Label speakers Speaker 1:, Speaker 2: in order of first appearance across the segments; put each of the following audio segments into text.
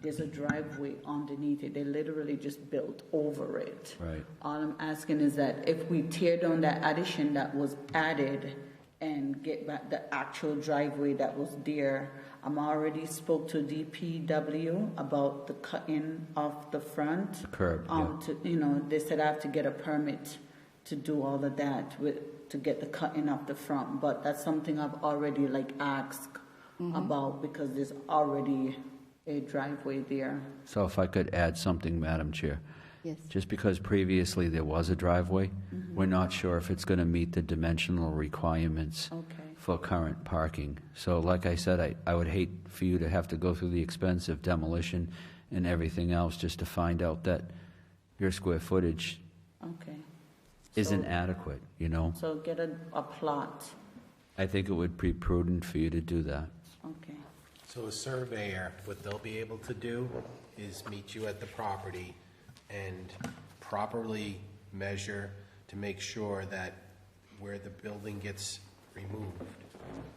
Speaker 1: there's a driveway underneath it. They literally just built over it.
Speaker 2: Right.
Speaker 1: All I'm asking is that if we tear down that addition that was added and get back the actual driveway that was there, I'm already spoke to DPW about the cutting of the front.
Speaker 2: Curb, yeah.
Speaker 1: Um, to, you know, they said I have to get a permit to do all of that with, to get the cutting of the front, but that's something I've already like asked
Speaker 3: Mm-hmm.
Speaker 1: about because there's already a driveway there.
Speaker 2: So if I could add something, Madam Chair.
Speaker 3: Yes.
Speaker 2: Just because previously there was a driveway, we're not sure if it's going to meet the dimensional requirements
Speaker 1: Okay.
Speaker 2: for current parking. So like I said, I, I would hate for you to have to go through the expense of demolition and everything else just to find out that your square footage
Speaker 1: Okay.
Speaker 2: isn't adequate, you know?
Speaker 1: So get a, a plot.
Speaker 2: I think it would be prudent for you to do that.
Speaker 1: Okay.
Speaker 4: So a surveyor, what they'll be able to do is meet you at the property and properly measure to make sure that where the building gets removed,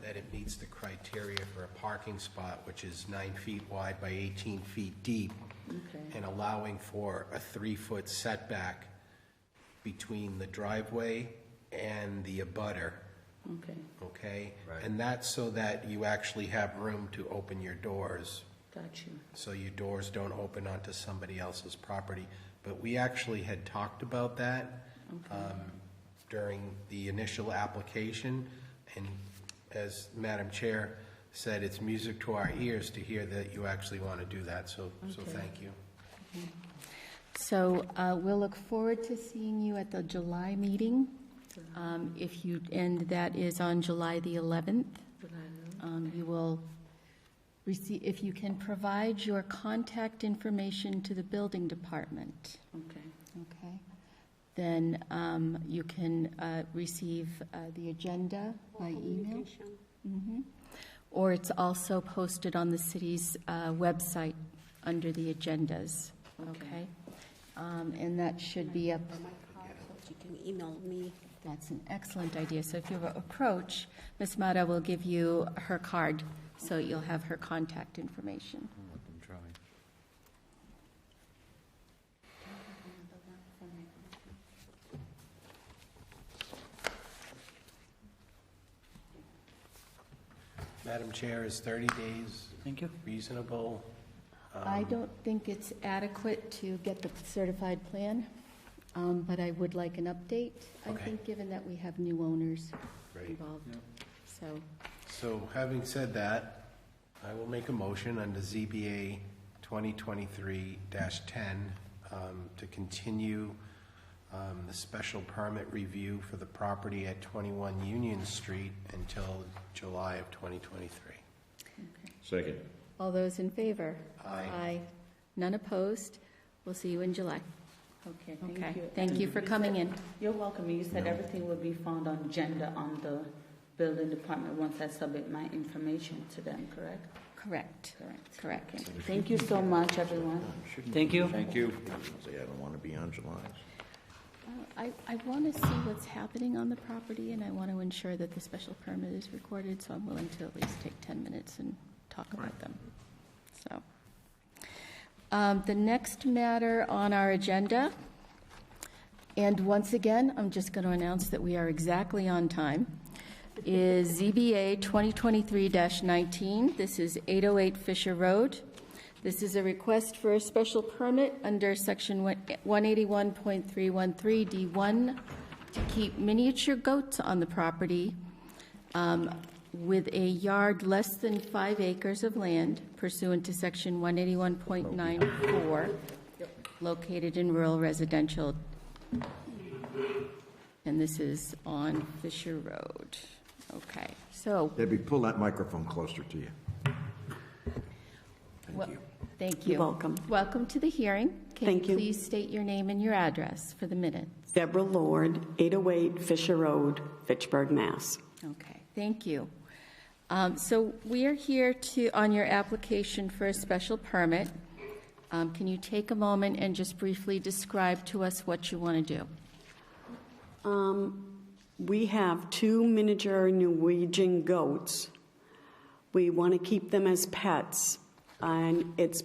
Speaker 4: that it meets the criteria for a parking spot, which is nine feet wide by 18 feet deep,
Speaker 1: Okay.
Speaker 4: and allowing for a three-foot setback between the driveway and the abutter
Speaker 1: Okay.
Speaker 4: okay? And that's so that you actually have room to open your doors,
Speaker 1: Got you.
Speaker 4: so your doors don't open onto somebody else's property. But we actually had talked about that um, during the initial application, and as Madam Chair said, it's music to our ears to hear that you actually want to do that, so, so thank you.
Speaker 3: So uh, we'll look forward to seeing you at the July meeting. Um, If you, and that is on July the 11th. Um, You will receive, if you can provide your contact information to the building department,
Speaker 1: Okay.
Speaker 3: okay? Then um, you can uh, receive uh, the agenda by email. Mhm. Or it's also posted on the city's uh, website under the agendas, okay? Um, And that should be up,
Speaker 5: You can email me.
Speaker 3: that's an excellent idea. So if you approach, Ms. Mata will give you her card, so you'll have her contact information.
Speaker 4: Madam Chair, is 30 days
Speaker 2: Thank you.
Speaker 4: reasonable?
Speaker 3: I
Speaker 4: Um,
Speaker 3: don't think it's adequate to get the certified plan, um, but I would like an update. I
Speaker 4: Okay.
Speaker 3: think, given that we have new owners
Speaker 4: Right.
Speaker 3: involved, so.
Speaker 4: So having said that, I will make a motion under ZBA 2023-10 um, to continue um, the special permit review for the property at 21 Union Street until July of 2023.
Speaker 6: Second.
Speaker 3: All those in favor?
Speaker 4: Aye.
Speaker 3: None opposed? We'll see you in July.
Speaker 1: Okay,
Speaker 3: Okay.
Speaker 1: thank you.
Speaker 3: Thank you for coming in.
Speaker 1: You're welcome. You said everything will be found on agenda on the building department once I submit my information to them, correct?
Speaker 3: Correct.
Speaker 1: Correct.
Speaker 3: Correct.
Speaker 1: Thank you so much, everyone.
Speaker 6: Thank you. Thank you. Say, I don't want to be on July.
Speaker 3: Uh, I, I want to see what's happening on the property, and I want to ensure that the special permit is recorded, so I'm willing to at least take 10 minutes and talk about them. So, um, the next matter on our agenda, and once again, I'm just going to announce that we are exactly on time, is ZBA 2023-19. This is 808 Fisher Road. This is a request for a special permit under Section 181.313D1 to keep miniature goats on the property um, with a yard less than five acres of land pursuant to Section 181.94, located in rural residential and this is on Fisher Road. Okay, so,
Speaker 6: Debbie, pull that microphone closer to you.
Speaker 3: wel-
Speaker 6: Thank you.
Speaker 3: thank you.
Speaker 7: You're welcome.
Speaker 3: Welcome to the hearing. Can
Speaker 7: Thank
Speaker 3: you
Speaker 7: you.
Speaker 3: please state your name and your address for the minute?
Speaker 7: Deborah Lord, 808 Fisher Road, Fitchburg, Mass.
Speaker 3: Okay, thank you. Um, So we are here to, on your application for a special permit. Um, Can you take a moment and just briefly describe to us what you want to do?
Speaker 7: We have two miniature Norwegian goats. We want to keep them as pets, and it's